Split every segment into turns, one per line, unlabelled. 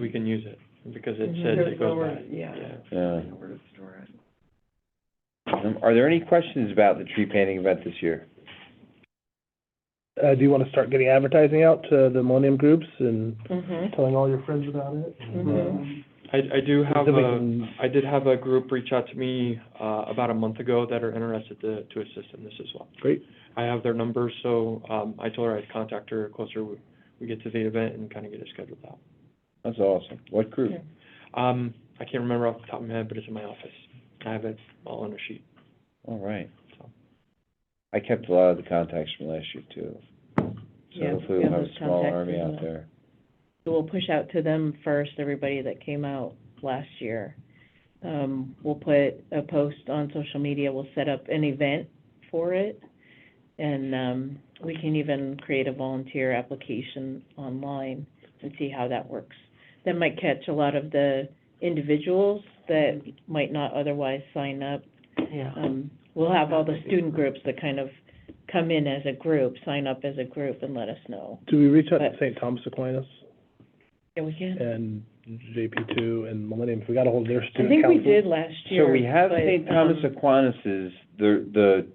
we can use it, because it
Mhm.
says
There's
it goes
nowhere-
by.
yeah.
Yeah.
Where to store it.
Um, Are there any questions about the tree painting event this year?
Uh, do you want to start getting advertising out to the Millennium groups and
Mm-hmm,
telling all your friends about it? uh,
mm-hmm,
I, I do have
So we
a,
can-
I did have a group reach out to me, uh, about a month ago that are interested to, to assist in this as well.
Great.
I have their numbers, so, um, I told her I'd contact her closer we, we get to the event and kind of get it scheduled out.
That's awesome. What group?
Yeah.
Um, I can't remember off the top of my head, but it's in my office. I have it all on a sheet,
All right.
so.
I kept a lot of the contacts from last year too. So
Yeah,
hopefully
we have
we'll have
those
a small
contacts
army
as
out
well.
there.
so we'll push out to them first, everybody that came out last year. Um, we'll put a post on social media, we'll set up an event for it, and, um, we can even create a volunteer application online and see how that works. That might catch a lot of the individuals that might not otherwise sign up
Yeah.
um, we'll have all the student groups that kind of come in as a group, sign up as a group and let us know.
Do we reach out to
But-
St. Thomas Aquinas
Yeah, we can.
and JP two and Millennium? If we got ahold of their
I
student
think we
council.
did last year.
So we have
but,
St. Thomas
um,
Aquinas's, the, the,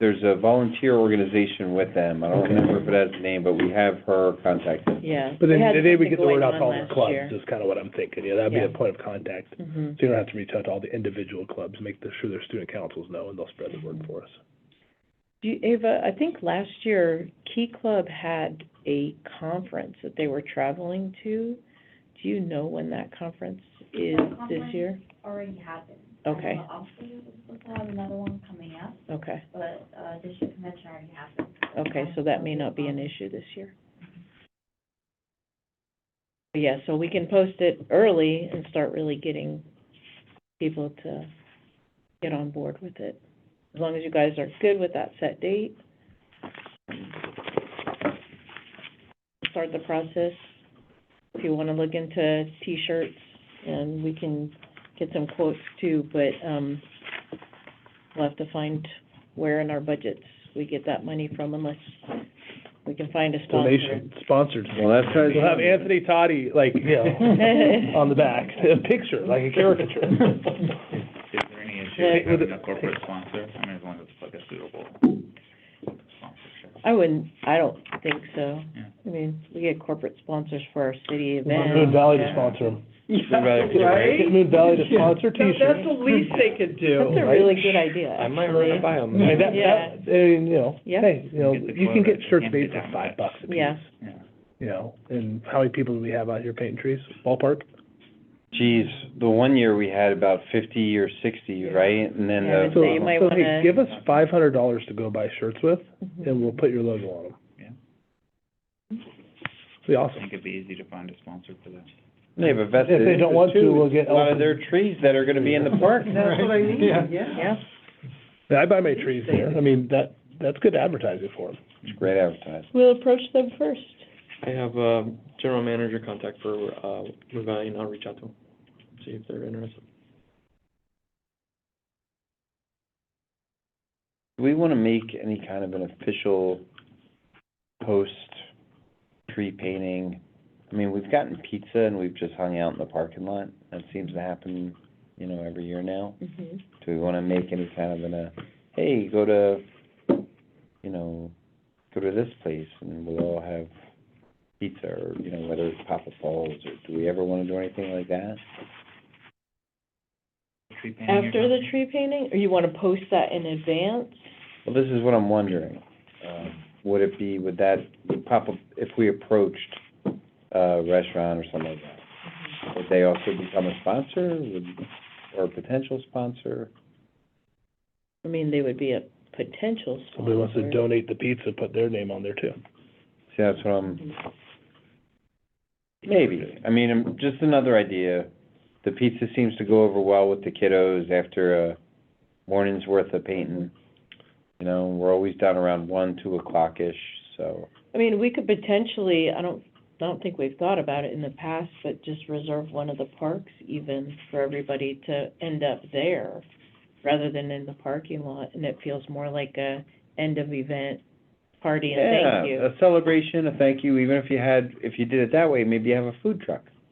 there's a volunteer organization with them. I don't
Okay.
remember if it has a name, but we have her contact.
Yeah.
But then
we had
today we
something
get the word
going
out to
on
all the
last
clubs
year.
is kind of what I'm thinking. Yeah, that'd be a
Yeah.
point of contact.
Mhm.
So you don't have to reach out to all the individual clubs, make the- sure their student councils know and they'll spread the word for us.
Do you, Ava, I think last year Key Club had a conference that they were traveling to. Do you know when that conference is this year?
already happened.
Okay.
Uh, Obviously, we're supposed to have another one coming up,
Okay,
but, uh, district convention already happened.
okay, so that may not be an issue this year. Yeah, so we can post it early and start really getting people to get on board with it. As long as you guys are good with that set date. Start the process. If you wanna look into T-shirts and we can get some quotes too, but, um, we'll have to find where in our budgets we get that money from unless we can find a sponsor.
Donation, sponsored.
Well, that's what I was
We'll have
wondering.
Anthony Totti, like, you know, on the back, a picture, like a caricature.
Is there any
Yeah.
issue with having a corporate sponsor? I mean, as long as it's like a suitable sponsorship.
I wouldn't, I don't think so.
Yeah.
I mean, we get corporate sponsors for our city events.
Moon Valley to
Yeah.
sponsor them.
right?
Get Moon Valley to sponsor
That-
T-shirts.
That's the least they could do.
That's a really good idea,
I might
actually.
run it by them.
Like that,
Yeah.
that, and, you know,
Yeah.
hey, you know,
Get the
you can
quota,
get
you
shirts
can't
made
get
for
down
five
bad.
bucks a piece.
Yeah.
Yeah.
You know, and how many people do we have out here painting trees? Ballpark?
Geez, the one year we had about fifty or sixty, right? And then
Yeah,
the.
but they might
So, hey,
wanna-
give us five hundred dollars to go buy shirts with,
Mm-hmm.
and we'll put your logo on them.
Yeah.
Be
I
awesome.
think it'd be easy to find a sponsor for that.
They have a vested
If they don't want
interest,
to,
too.
we'll get
A lot of
elephants.
their trees that are gonna be in the park.
That's what I mean,
Yeah,
Yeah, I buy my trees there. I mean, that, that's good advertising for them.
It's great advertising.
we'll approach them first.
I have a general manager contact for, uh, Blue Valley, and I'll reach out to them, see if they're interested.
Do we wanna make any kind of an official post tree painting? I mean, we've gotten pizza and we've just hung out in the parking lot. That seems to happen, you know, every year now.
Mhm.
Do we wanna make any kind of an, uh, hey, go to, you know, go to this place and we'll all have pizza or, you know, whether it's Papa Falls or, do we ever wanna do anything like that?
Tree painting or
After the
something?
tree painting, or you wanna post that in advance?
Well, this is what I'm wondering. Um, Would it be, would that would pop up, if we approached a restaurant or something like that, would they also become a sponsor, would- or a potential sponsor?
I mean, they would be a potential sponsor.
Somebody wants to donate the pizza, put their name on there too.
See, that's what
Mm-hmm.
I'm, maybe. I mean, um, just another idea. The pizza seems to go over well with the kiddos after a morning's worth of painting. You know, we're always down around one, two o'clock-ish, so.
I mean, we could potentially, I don't, I don't think we've thought about it in the past, but just reserve one of the parks even for everybody to end up there rather than in the parking lot, and it feels more like a end of event party and thank you.
Yeah, a celebration, a thank you, even if you had, if you did it that way, maybe you have a food truck.